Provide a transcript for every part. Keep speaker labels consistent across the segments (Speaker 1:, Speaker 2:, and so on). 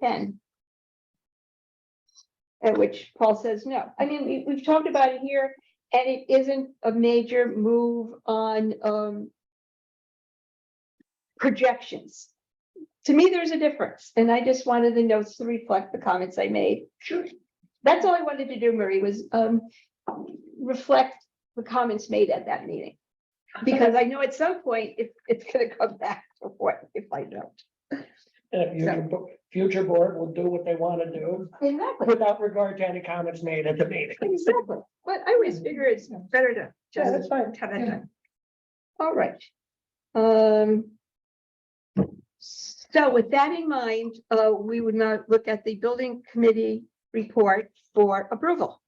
Speaker 1: ten. At which Paul says no. I mean, we, we've talked about it here and it isn't a major move on, um. Projections. To me, there's a difference and I just wanted the notes to reflect the comments I made. Sure. That's all I wanted to do, Marie, was, um, reflect the comments made at that meeting. Because I know at some point, it, it's gonna come back to what, if I don't.
Speaker 2: And if
Speaker 1: So-
Speaker 2: your bo- future board will do what they want to do
Speaker 1: Exactly,
Speaker 2: without regard to any comments made at the meeting.
Speaker 1: exactly. But I always figure it's better to
Speaker 2: Yeah,
Speaker 1: just
Speaker 2: that's fine.
Speaker 1: have that done. All right. Um. So with that in mind, uh, we would now look at the building committee report for approval.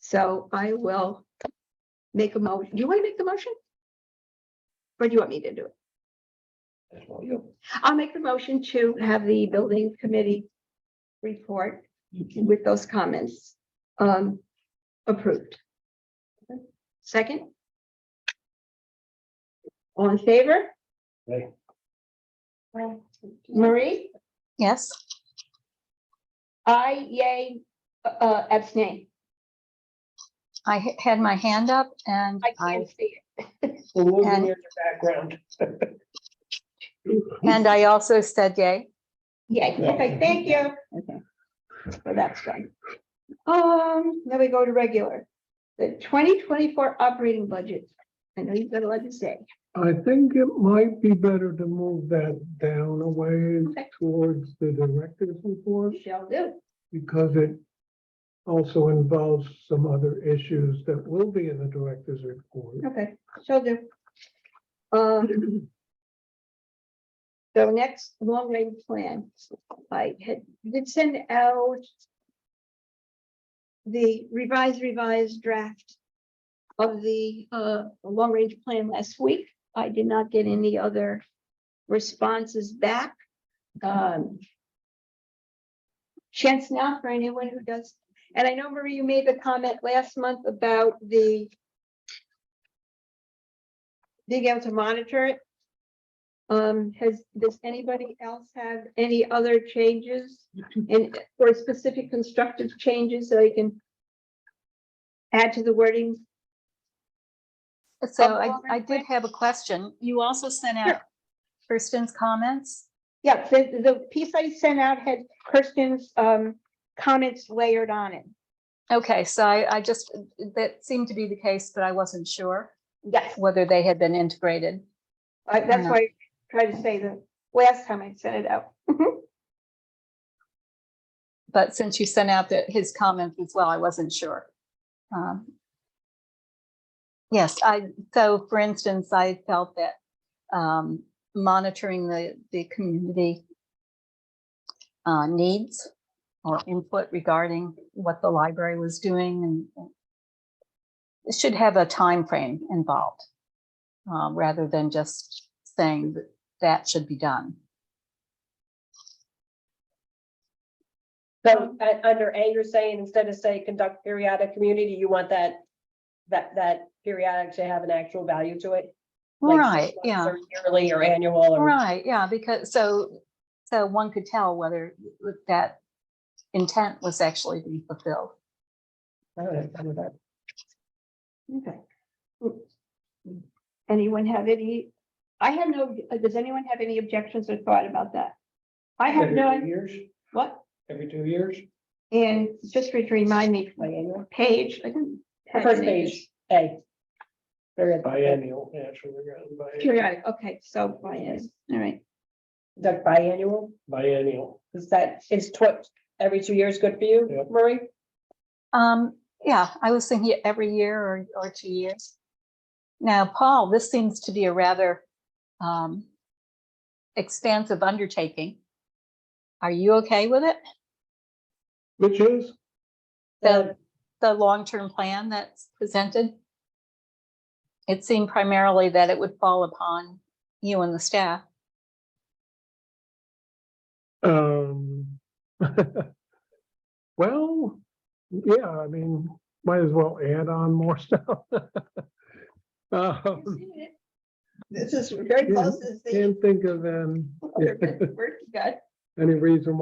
Speaker 1: So I will make a motion. Do you want to make the motion? Or do you want me to do it?
Speaker 2: That's all you.
Speaker 1: I'll make the motion to have the building committee report with those comments um approved. Second? All in favor?
Speaker 2: Aye.
Speaker 1: Marie,
Speaker 3: Yes.
Speaker 1: I yay uh abstain.
Speaker 3: I h- had my hand up and
Speaker 1: I
Speaker 3: I,
Speaker 1: can't see it.
Speaker 2: The woods
Speaker 3: And-
Speaker 2: in your background.
Speaker 3: and I also said yay.
Speaker 1: Yay, okay, thank you.
Speaker 3: Okay.
Speaker 1: So that's done. Um, now we go to regular. The twenty twenty-four operating budget. I know you've got a lot to say.
Speaker 4: I think it might be better to move that down a ways
Speaker 1: Okay.
Speaker 4: towards the director's report
Speaker 1: Shall do.
Speaker 4: because it also involves some other issues that will be in the director's report.
Speaker 1: Okay, shall do. Um. So next, long range plan, I had, did send out. The revised revised draft of the uh long range plan last week. I did not get any other responses back. Um. Chance now for anyone who does, and I know Marie, you made the comment last month about the being able to monitor it. Um, has, does anybody else have any other changes and or specific constructive changes that I can add to the wording?
Speaker 3: So
Speaker 1: Oh,
Speaker 3: I,
Speaker 1: well,
Speaker 3: I
Speaker 1: real
Speaker 3: did
Speaker 1: quick.
Speaker 3: have a question. You also sent
Speaker 1: Sure.
Speaker 3: out Kirsten's comments.
Speaker 1: Yeah, the, the piece I sent out had Kirsten's, um, comments layered on it.
Speaker 3: Okay, so I, I just, that seemed to be the case, but I wasn't sure
Speaker 1: Yes.
Speaker 3: whether they had been integrated.
Speaker 1: I- That's
Speaker 3: Yeah.
Speaker 1: why I tried to say the last time I sent it out.
Speaker 3: But since you sent out the, his comments as well, I wasn't sure. Um, Yes, I, so for instance, I felt that um, monitoring the, the community uh, needs or input regarding what the library was doing and and it should have a time frame involved um, rather than just saying that that should be done.
Speaker 5: So uh, under A, you're saying instead of say conduct periodic community, you want that, that, that periodic to have an actual value to it? like six
Speaker 3: Right,
Speaker 5: months
Speaker 3: yeah.
Speaker 5: or Yearly or annual or,
Speaker 3: Right, yeah, because, so, so one could tell whether that intent was actually being fulfilled.
Speaker 2: All right, I'm with that.
Speaker 1: Okay. Anyone have any, I have no, does anyone have any objections or thought about that? I have
Speaker 2: Every two
Speaker 1: none,
Speaker 2: years,
Speaker 1: what,
Speaker 2: every two years.
Speaker 1: and just to remind me, page, I didn't. have
Speaker 5: first
Speaker 1: any.
Speaker 5: page, A. Very
Speaker 2: Biennial, actually, we're going biennial.
Speaker 1: Periodic, okay, so, Brian, all right,
Speaker 5: Conduct biannual,
Speaker 2: biennial.
Speaker 5: is that, is tw- every two years good for you,
Speaker 2: Yep.
Speaker 5: Marie?
Speaker 3: Um, yeah, I was thinking every year or, or two years. Now, Paul, this seems to be a rather, um, expansive undertaking. Are you okay with it?
Speaker 4: Which is,
Speaker 3: The, the long-term plan that's presented? It seemed primarily that it would fall upon you and the staff.
Speaker 4: um, well, yeah, I mean, might as well add on more stuff. Um,
Speaker 6: This is very
Speaker 4: Yeah,
Speaker 6: close to the
Speaker 4: Can't think of um,
Speaker 1: Other good work you got.
Speaker 4: any reason why